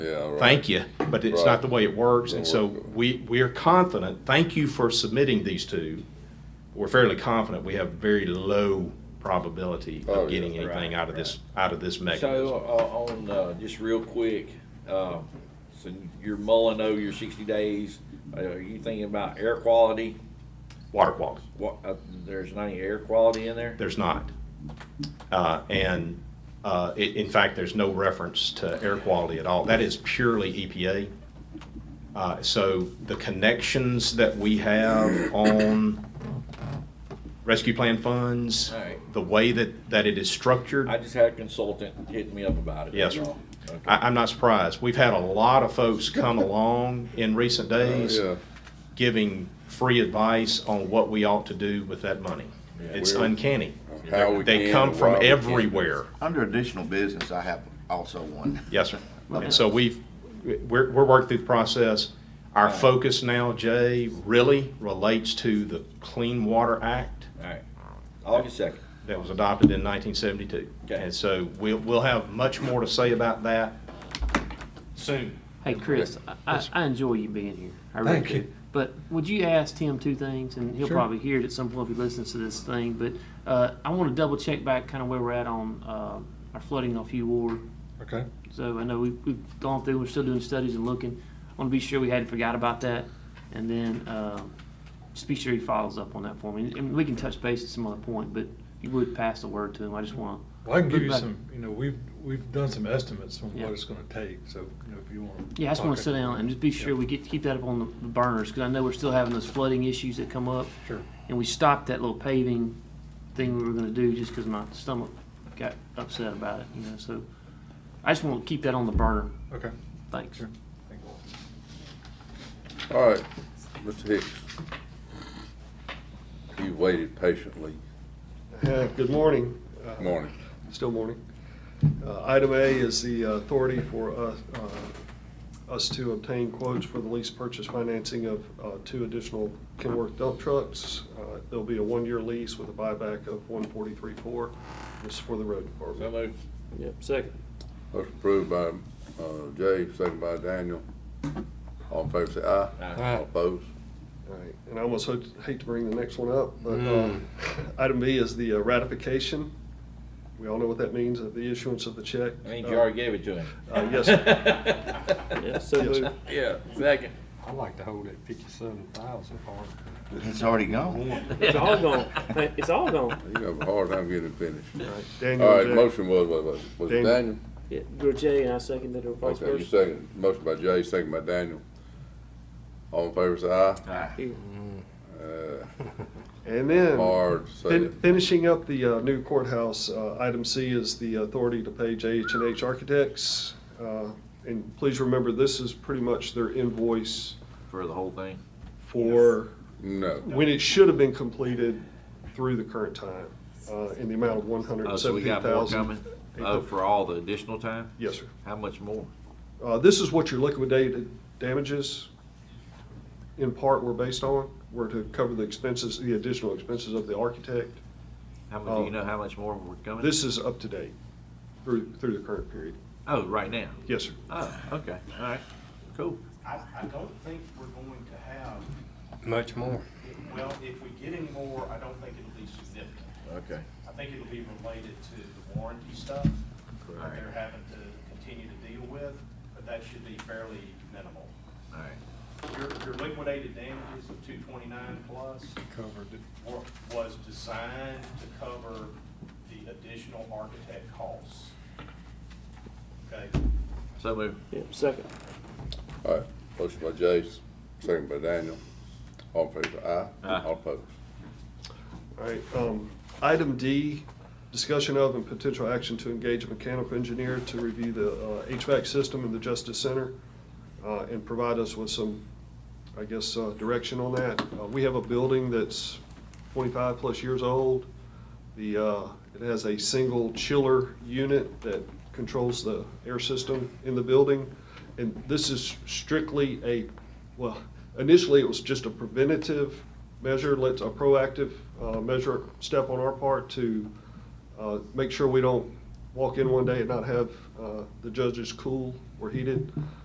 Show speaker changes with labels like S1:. S1: Yeah, right.
S2: thank you, but it's
S1: Right.
S2: not the way it works. And so
S1: Don't work.
S2: we, we are confident, thank you for submitting these two. We're fairly confident we have very low probability
S1: Oh, yeah.
S2: of getting anything
S3: Right,
S2: out of this, out of this mechanism.
S3: So, uh, on, uh, just real quick, uh, so you're mulling over your sixty days, uh, are you thinking about air quality?
S2: Water quality,
S3: What, uh, there's not any air quality in there?
S2: there's not. Uh, and, uh, i- in fact, there's no reference to air quality at all. That is purely EPA. Uh, so the connections that we have on rescue plan funds,
S3: All right.
S2: the way that, that it is structured.
S3: I just had a consultant hit me up about it.
S2: Yes,
S3: that's
S2: sir.
S3: all. Okay.
S2: I, I'm not surprised. We've had a lot of folks come along in recent days
S1: yeah.
S2: giving free advice on what we ought to do with that money. It's
S1: Well,
S2: uncanny.
S1: how we
S2: They
S1: can
S2: come
S1: and
S2: from
S1: why we can.
S2: everywhere.
S4: Under additional business, I have also one.
S2: Yes, sir. And so we've, we're, we're working through the process. Our focus now, Jay, really relates to the Clean Water Act
S3: All right, August second,
S2: that was adopted in 1972.
S3: Okay.
S2: And so we'll, we'll have much more to say about that soon.
S5: Hey, Chris, I- I, I enjoy you being here. I really
S6: Thank
S5: do.
S6: you.
S5: But would you ask Tim two things, and he'll
S6: Sure.
S5: probably hear it at some point if he listens to this thing. But uh, I want to double check back kind of where we're at on uh, our flooding off U Ward.
S6: Okay.
S5: So I know we, we've gone through, we're still doing studies and looking. I want to be sure we hadn't forgot about that. And then um just be sure he follows up on that for me. And we can touch base at some other point, but you would pass the word to him. I just want
S6: Well, I can give you
S5: But-
S6: some, you know, we've, we've done some estimates on
S5: Yeah.
S6: what it's gonna take, so, you know, if you want.
S5: Yeah, I just want to sit down and just be sure we get, keep that up on the burners, because I know we're still having those flooding issues that come up.
S6: Sure.
S5: And we stopped that little paving thing we were gonna do just because my stomach got upset about it, you know, so I just want to keep that on the burner.
S6: Okay.
S5: Thanks.
S6: Sure.
S1: All right, Mr. Hicks. You waited patiently.
S7: Uh, Good morning. Uh,
S1: Morning.
S7: Still morning. Uh, Item A is the authority for us, uh, us to obtain quotes for the lease purchase financing of uh, two additional Kenworth dump trucks. Uh, There'll be a one-year lease with a buyback of 143.4. This is for the road
S3: so
S7: department.
S3: moved.
S5: Yep, second.
S1: Motion approved by, uh, Jay, second by Daniel. All in favor, say aye.
S3: Aye.
S1: All opposed?
S7: All right, and I almost hate hate to bring the next one up, but uh, item B is the uh, ratification. We all know what that means, of the issuance of the check.
S3: I think you already gave it to him.
S7: Uh, Yes, sir.
S5: Yeah, so
S7: Yes, sir.
S3: Yeah, second.
S8: I'd like to hold that fifty-seven thousand part.
S4: It's already gone.
S5: It's all gone. It's all gone.
S1: You have a hard time getting it finished.
S7: All right, Uh, Daniel,
S1: All right,
S7: Jack.
S1: motion was, was, was it
S7: Daniel.
S1: Daniel?
S5: You're Jay, and I seconded her vice
S1: Okay, you second. Motion by Jay, second by Daniel. All in favor, say aye. Uh,
S7: And then.
S1: Hard to say
S7: Fin-
S1: it.
S7: Finishing up the uh, new courthouse, uh, item C is the authority to pay jh and H Architects. Uh, And please remember, this is pretty much their invoice
S3: For the whole thing?
S7: for
S1: No.
S7: when it should have been completed through the current time, uh, in the amount of one hundred
S3: Oh,
S7: and
S3: so we got
S7: seventeen
S3: more
S7: thousand.
S3: coming? Oh, for all the additional time?
S7: Yes, sir.
S3: How much more?
S7: Uh, This is what your liquidated damages in part were based on, were to cover the expenses, the additional expenses of the architect.
S3: How much, do
S7: Oh.
S3: you know how much more we're coming?
S7: This is up to date through, through the current period.
S3: Oh, right now?
S7: Yes, sir.
S3: Oh, okay, all right, cool.
S9: I, I don't think we're going to have,
S8: Much more.
S9: well, if we get any more, I don't think it'll be significant.
S3: Okay.
S9: I think it'll be related to the warranty stuff that
S3: Right.
S9: they're having to continue to deal with, but that should be fairly minimal.
S3: All right.
S9: Your, your liquidated damages of two twenty-nine plus
S8: Covered it.
S9: were- was designed to cover the additional architect costs. Okay?
S3: So moved.
S5: Yep, second.
S1: All right, motion by Jay, second by Daniel. All in favor, say aye.
S3: Aye.
S1: All opposed?
S7: All right, um, item D, discussion of and potential action to engage a mechanical engineer to review the uh, HVAC system in the Justice Center uh, and provide us with some, I guess, uh, direction on that. Uh, We have a building that's twenty-five-plus years old. The, uh, it has a single chiller unit that controls the air system in the building. And this is strictly a, well, initially it was just a preventative measure, let's, a proactive uh, measure, step on our part to uh, make sure we don't walk in one day and not have uh, the judges cool or heated.